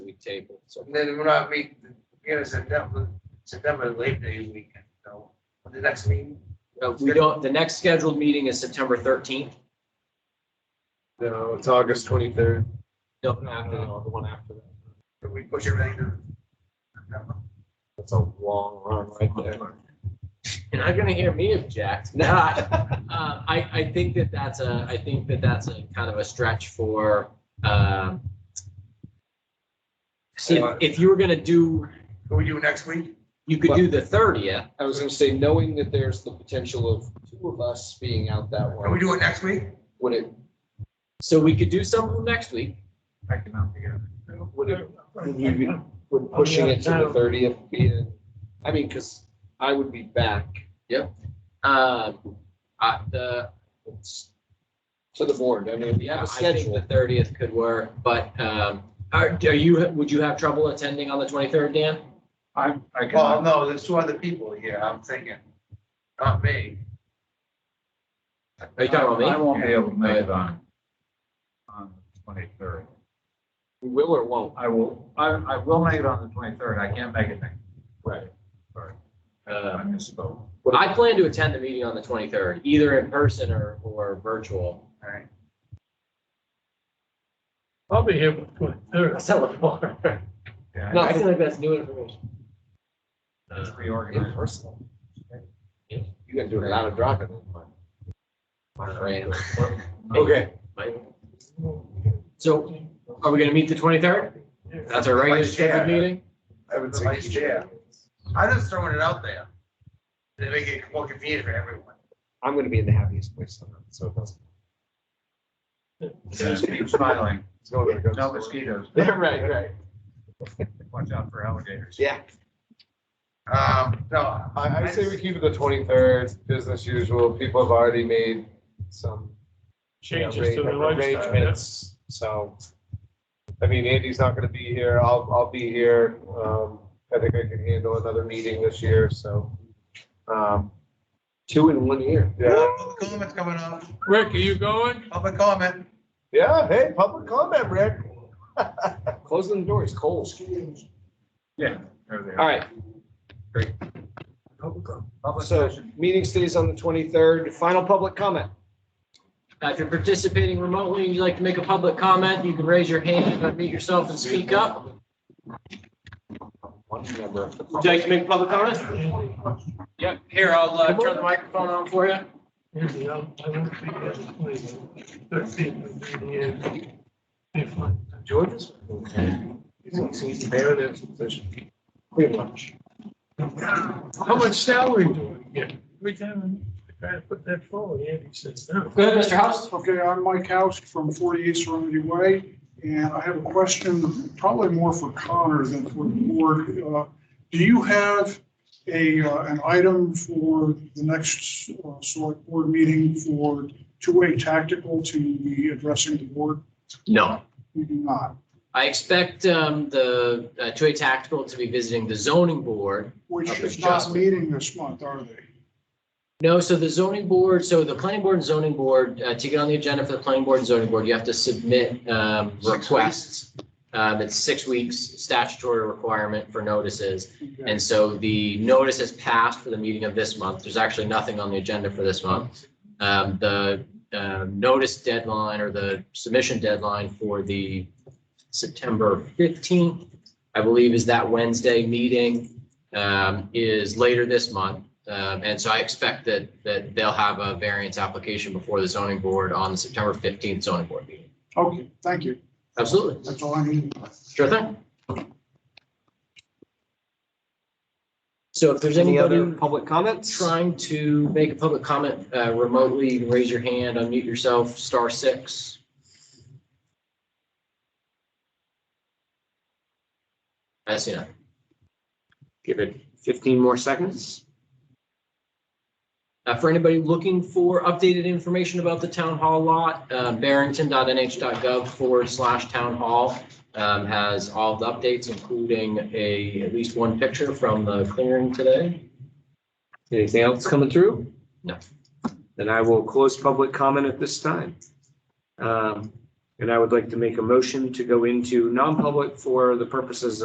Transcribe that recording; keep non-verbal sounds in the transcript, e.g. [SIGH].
table, so. And then we're not meeting, you know, September, September late day weekend, so, the next meeting, Uh, We don't, the next scheduled meeting is September thirteenth. No, it's August twenty-third. No, No, the one after that. can we push everything to September? That's a long run right there. You're not gonna hear me object. [LAUGHS] No, I, uh, I, I think that that's a, I think that that's a kind of a stretch for, um, see, if- if you were gonna do, Can we do next week? you could do the thirtieth, I was gonna say, knowing that there's the potential of two of us being out that Can we way, do it next week? would it, so we could do something next week. I cannot figure it out. would it, would we be, would pushing it to the thirtieth be, in- I mean, cause I would be back Um, uh, the, to the board. I mean, we yeah, have I a think the schedule. thirtieth could work, but, um, are, are you, would you have trouble attending on the twenty-third, Dan? I'm, I Well, can, no, there's two other people here, I'm thinking, not me. Are you talking about me? I won't be able to make it on, on the twenty-third. We Will or won't? I will, I, I will make it on the twenty-third. I can't make it next. Right. Sorry, Uh, I Um, misspoke. But I plan to attend the meeting on the twenty-third, either in person or, or virtual. Alright, I'll be here for twenty-third. Yeah, No, I feel like that's new [LAUGHS] information. It's In reorganized. person. You gotta do it out of dropping. Right. Okay. So are we gonna meet the twenty-third? That's our regular Vice chair. scheduled meeting? I would say vice chair. I'm just throwing it out there. They make it more convenient for everyone. I'm gonna be in the happiest place on earth, so it doesn't. Yeah, Keep smiling. it's nowhere to go. No mosquitoes. [LAUGHS] Right, right. Watch out for alligators. Yeah. Um, no. I, I say we keep it the twenty-third, business usual. People have already made some. you know, Changes to the arra- lifestyle. yeah. Arrangements, so. I mean, Andy's not gonna be here. I'll, I'll be here. Um, I think I can handle another meeting this year, so. Um, two in one year. Yeah, Public Comment's coming up, Rick, are you going? public comment. yeah, hey, public comment, Rick. [LAUGHS] Closing the door is cold. Yeah. they're there. All right, Public so session. meeting stays on the twenty-third. Final public comment. Uh, If you're participating remotely and you'd like to make a public comment, you can raise your hand, unmute yourself and speak up. One member of the Would you like to make a public comment? Yep, here, I'll uh, turn the microphone on for you. Here's the, um, I won't be here the 23rd. Thirteenth will be here. If I- George's? He's there, there's pretty much. How much salary do we get? Every time I try to put that forward, Andy says, no. Go ahead, Mr. House. Okay, I'm Mike House from 48 Serenity Way, and I have a question, probably more for Connor than for the board. Uh, Do you have a, uh, an item for the next uh, select board meeting for two-way tactical to be addressing the board? No. You do not, I expect um, the uh, two A Tactical to be visiting the zoning board. which Up is in not Justin. meeting this month, are they? No, so the zoning board, so the planning board and zoning board, uh, to get on the agenda for the planning board and zoning board, you have to submit um, requests. Um, It's six weeks statutory requirement for notices. Okay. And so the notice has passed for the meeting of this month. There's actually nothing on the agenda for this month. Um, The uh, notice deadline or the submission deadline for the September 15th, I believe is that Wednesday meeting, um, is later this month. Um, and so I expect that, that they'll have a variance application before the zoning board on the September 15th zoning board meeting. Okay, thank you. Absolutely. That's all I need. Sure thing. So if there's Any other anybody public comments? trying to make a public comment uh, remotely, you can raise your hand, unmute yourself, star six. I see none. Give it fifteen more seconds. Uh, for anybody looking for updated information about the town hall lot, uh, barrington.nh.gov forward slash town hall um, has all the updates, including a, at least one picture from the clearing today. Anything else coming through? No. Then I will close public comment at this time. Um, And I would like to make a motion to go into non-public for the purposes